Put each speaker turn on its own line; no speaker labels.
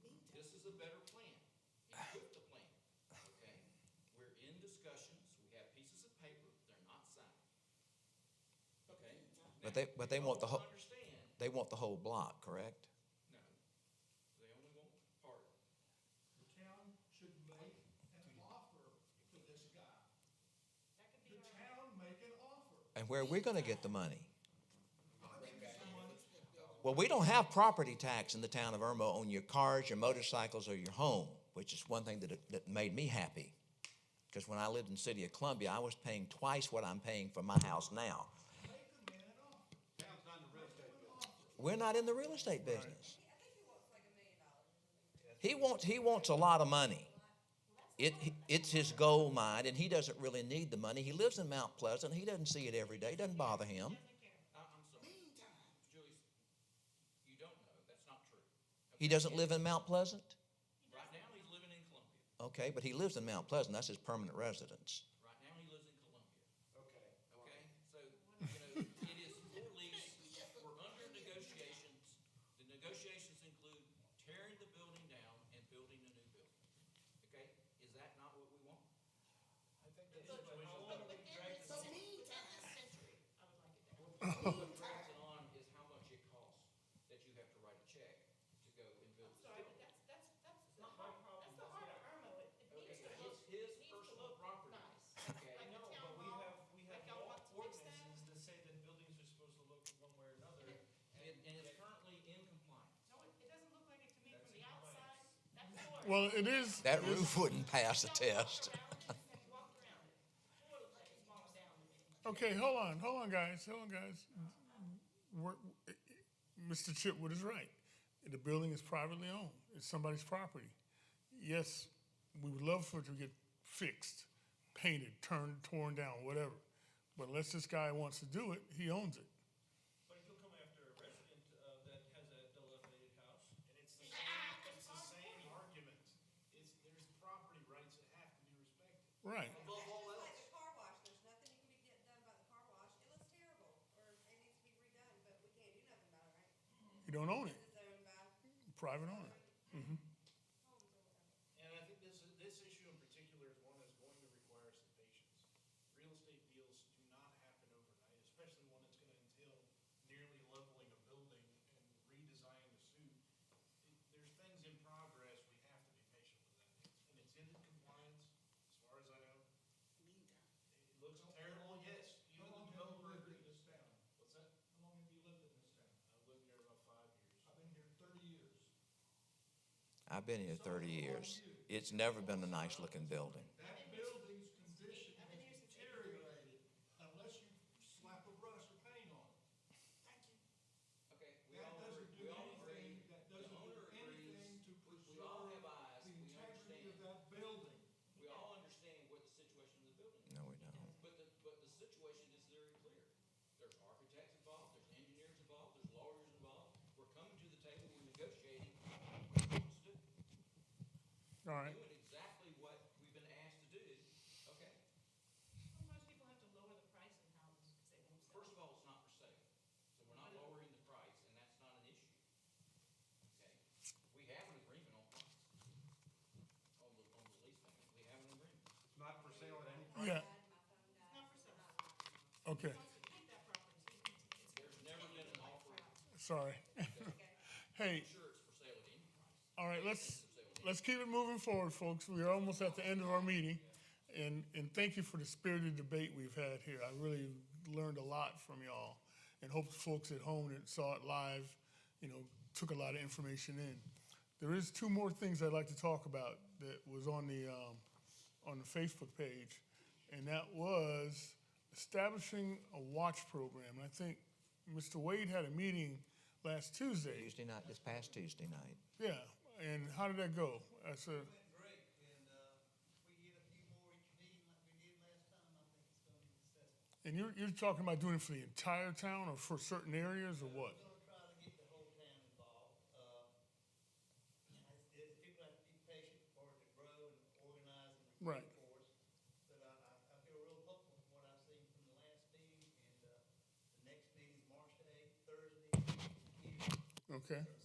is the better plan. It's with the plan, okay? We're in discussions, we have pieces of paper, they're not signed. Okay?
But
Now,
they- but they want the
people
whole-
Understand,
They want the whole block, correct?
no, they only want part.
The town should make an offer to this guy.
That could
The
be our.
town make an offer.
And where are we going to get the money?
I think someone,
Well, we don't have property tax in the town of Irma on your cars, your motorcycles, or your home, which is one thing that, that made me happy. Because when I lived in the city of Columbia, I was paying twice what I'm paying for my house now.
make the man an offer.
Town's not in the real estate business.
We're not in the real estate business.
I think he wants like a million dollars.
He wants, he wants a lot of money. It, it's his gold mine, and he doesn't really need the money. He lives in Mount Pleasant. He doesn't see it every day. It doesn't bother him.
Doesn't care.
I, I'm sorry, Julie, you don't know, that's not true.
He doesn't live in Mount Pleasant?
Right now, he's living in Columbia.
Okay, but he lives in Mount Pleasant. That's his permanent residence.
Right now, he lives in Columbia.
Okay.
Okay, so, you know, it is for lease, we're under negotiations. The negotiations include tearing the building down and building a new building. Okay, is that not what we want?
I think
But-
that's-
But within this, within this century, I would like it there.
What drags it on is how much it costs that you have to write a check to go and build this
I'm sorry, but
building.
that's, that's, that's the
Not my
heart,
problem,
that's the
that's
heart
not-
of Irma. It-
Okay,
It needs to
it's
look,
his
needs to
personal
look
property.
nice.
Okay,
Like
No,
the town
but we
hall,
have, we have
like y'all
law
want to fix that.
ordinances that say that buildings are supposed to look one way or another.
and, and it's currently in compliance.
No, it, it doesn't look like it to me
That's
from the
in place.
outside, that floor.
Well, it is.
That
it is-
roof wouldn't pass a
Y'all
test.
walked around it, y'all walked around it. Floor looks like it's falling down to me.
Okay, hold on, hold on, guys, hold on, guys. We're- Mr. Chipwood is right. The building is privately owned. It's somebody's property. Yes, we would love for it to get fixed, painted, turned, torn down, whatever. But unless this guy wants to do it, he owns it.
But if you'll come after a resident uh, that has a dilapidated house. And it's the
same- Ah, it's the same
argument. It's, there's property rights that have to be respected.
Right.
Above all
It's like
else.
the car wash, there's nothing you can be get done about the car wash, it looks terrible, or it needs to be redone, but we can't do nothing about it, right?
You don't own it.
It's owned by
Private owner.
homes or whatever.
And I think this, this issue in particular is one that's going to require some patience. Real estate deals do not happen overnight, especially one that's gonna entail nearly leveling a building and redesigning the suit. It- There's things in progress, we have to be patient with that. And it's in compliance, as far as I know. It looks terrible, yes,
How
even the
long have you
developer
lived in
agrees.
this town?
What's that?
How long have you lived in this town?
I've lived here about five years.
I've been here thirty years.
I've been here 30 years. It's never been a nice looking building.
That building's condition has deteriorated unless you slap a brush of paint on it.
Okay, we all,
That doesn't
agree-
do
we all agree,
anything, that
the
doesn't do
owner
anything
agrees,
to
we all have
preserve
eyes,
the
we
integrity
understand.
of that building.
We all understand what the situation of the building is.
No, we don't.
But the, but the situation is very clear. There's architects involved, there's engineers involved, there's lawyers involved. We're coming to the table, we're negotiating what we want to do.
All right.
Doing exactly what we've been asked to do. Okay,
Sometimes people have to lower the price in houses because they won't sell.
first of all, it's not for sale, so we're not lowering the price, and that's not an issue. Okay, we have an agreement on price. On the, on the lease payment, we have an agreement.
It's not for sale at any
Yeah,
Died, my phone died.
Not for sale.
okay,
Once we keep that property, so you can- it's-
There's never been an offer,
sorry.
Okay.
I'm
Hey,
sure it's for sale at any price.
all right, let's,
It's for sale at any-
let's keep it moving forward, folks. We are almost at the end of our meeting. And, and thank you for the spirited debate we've had here. I really learned a lot from y'all and hope the folks at home that saw it live, you know, took a lot of information in. There is two more things I'd like to talk about that was on the, um, on the Facebook page. And that was establishing a watch program. And I think Mr. Wade had a meeting last Tuesday.
Tuesday night, this past Tuesday night.
Yeah, and how did that go? I said,
went great, and, uh, if we get a few more each meeting like we did last time, I think it's gonna be successful.
and you're, you're talking about doing it for the entire town or for certain areas or what?
We're gonna try to get the whole town involved, uh, and it's, it's, people have to be patient for it to grow and organize and
Right.
recruit for us. But I, I, I feel real hopeful from what I've seen from the last meeting, and, uh, the next meeting's March eighth, Thursday, here.
Okay.